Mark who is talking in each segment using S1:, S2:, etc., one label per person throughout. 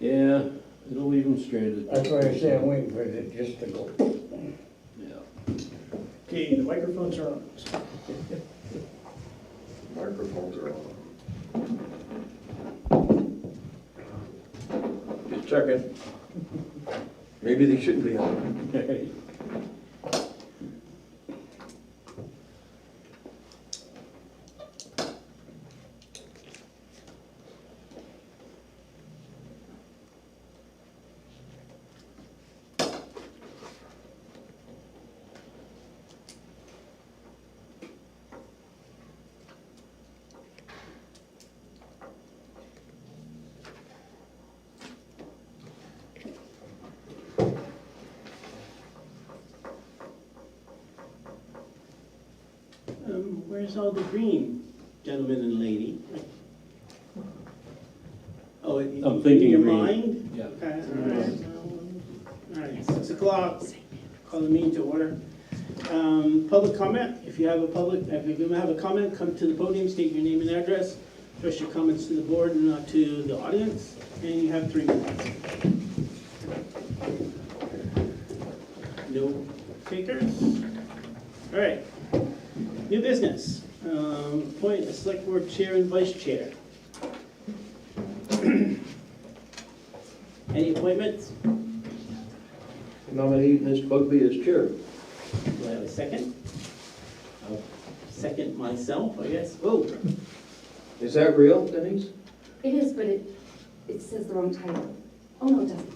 S1: Yeah, it'll leave them stranded.
S2: That's why I say I'm waiting for it just to go.
S1: Yeah.
S3: Okay, the microphones are on.
S4: Microphones are on. Just checking. Maybe they shouldn't be on.
S3: Um, where's all the green gentlemen and lady? Oh, it-
S1: I'm thinking
S3: in your
S1: green.
S3: mind?
S1: Yeah.
S3: Okay, all right. All right, six o'clock, call the meeting to order. Um, public comment, if you have a public, if you have a comment, come to the podium, state your name and address. Address your comments to the board and not to the audience, and you have three minutes. No takers? All right, New business, um, appoint a select board chair and vice chair. Any appointments?
S4: Nominate Ms. Bugby as chair.
S3: Do I have a second? I'll second myself, I guess. Oh,
S4: Is that real, Denise?
S5: It is, but it, it says the wrong title. Oh, no, it doesn't.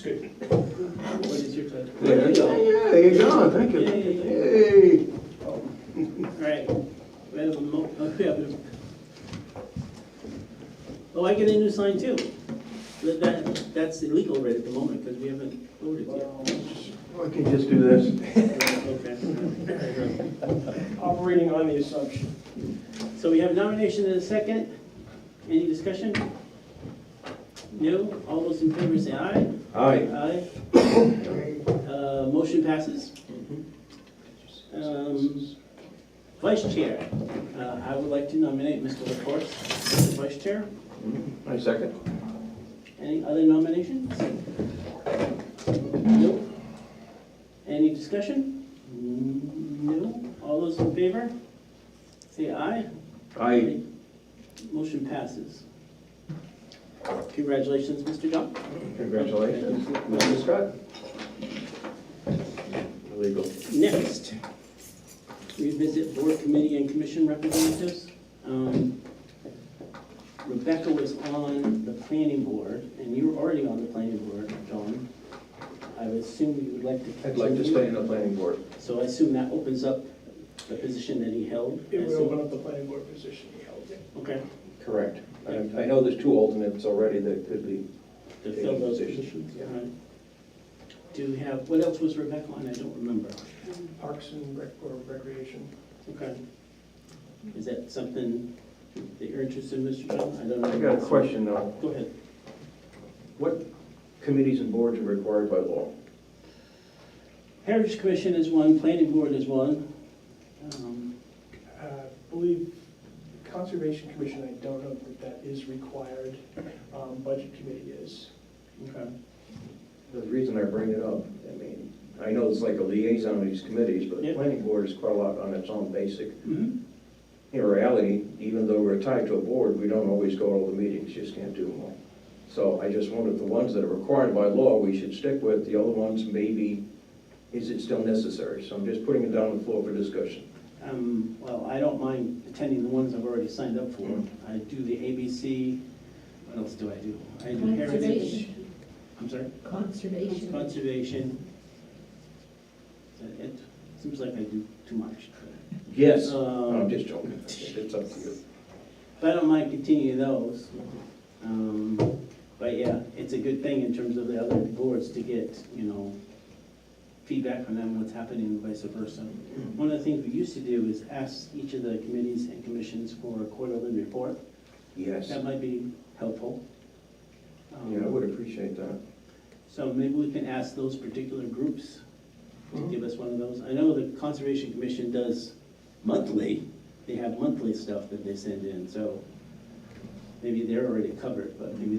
S5: Okay.
S3: what is your title?
S4: Yeah, yeah, you're gone, thank you.
S3: Yeah, yeah,
S4: Hey.
S3: All right. We have a mo- oh, we have a- Oh, I get a new sign too. But That, that's illegal right at the moment because we haven't voted yet.
S4: I can just do this.
S3: Okay.
S6: operating on the assumption.
S3: So we have nomination and a second. Any discussion? No? All those in favor say aye.
S4: Aye.
S3: Aye. Uh, Motion passes. Um, Vice Chair, uh, I would like to nominate Mr. LaForce as the Vice Chair.
S4: I second.
S3: Any other nominations? Nope. Any discussion? No. All those in favor? Say aye.
S4: Aye.
S3: Motion passes. Congratulations, Mr. Dunn.
S4: Congratulations. Mr. Scott? Legal.
S3: Next, revisit board committee and commission representatives. Um, Rebecca was on the planning board, and you were already on the planning board, John. I would assume you would like to
S4: I'd like to stay in the planning board.
S3: So I assume that opens up the position that he held.
S6: It would
S3: as a-
S6: open up the planning board position he held.
S3: Okay,
S4: Correct. I I know there's two alternates already that could be
S3: to fill
S4: taking
S3: those
S4: positions.
S3: positions.
S4: Yeah.
S3: All right. Do we have, what else was Rebecca on? I don't remember.
S6: Parks and Rec, or Recreation.
S3: Okay. Is that something that you're interested in, Mr. John? I don't know.
S4: I got a question though.
S3: Go ahead.
S4: What committees and boards are required by law?
S3: Heritage Commission is one, Planning Board is one. Um,
S6: Uh, I believe Conservation Commission, I don't know that that is required. Um, Budget Committee is.
S3: Okay.
S4: The reason I bring it up, I mean, I know it's like a liaison of these committees, but the
S3: Yeah.
S4: planning board is quite a lot on its own basic.
S3: Mhm.
S4: In reality, even though we're tied to a board, we don't always go to all the meetings, just can't do them all. So I just wondered, the ones that are required by law, we should stick with, the other ones maybe, is it still necessary? So I'm just putting it down on the floor for discussion.
S3: Um, Well, I don't mind attending the ones I've already signed up for.
S4: Mhm.
S3: I do the ABC, what else do I do? I do Heritage.
S7: Conservation.
S3: I'm sorry?
S7: Conservation.
S3: Conservation. Is that It seems like I do too much.
S4: Yes. I'm
S3: Um,
S4: just joking, it's up to you.
S3: But I don't mind continuing those. Um, But yeah, it's a good thing in terms of the other boards to get, you know, feedback from them, what's happening and vice versa.
S4: Mm-hmm.
S3: One of the things we used to do is ask each of the committees and commissions for a quarterly report.
S4: Yes,
S3: That might be helpful. Um,
S4: yeah, I would appreciate that.
S3: So maybe we can ask those particular groups to give us one of those. I know the Conservation Commission does monthly, they have monthly stuff that they send in, so maybe they're already covered, but maybe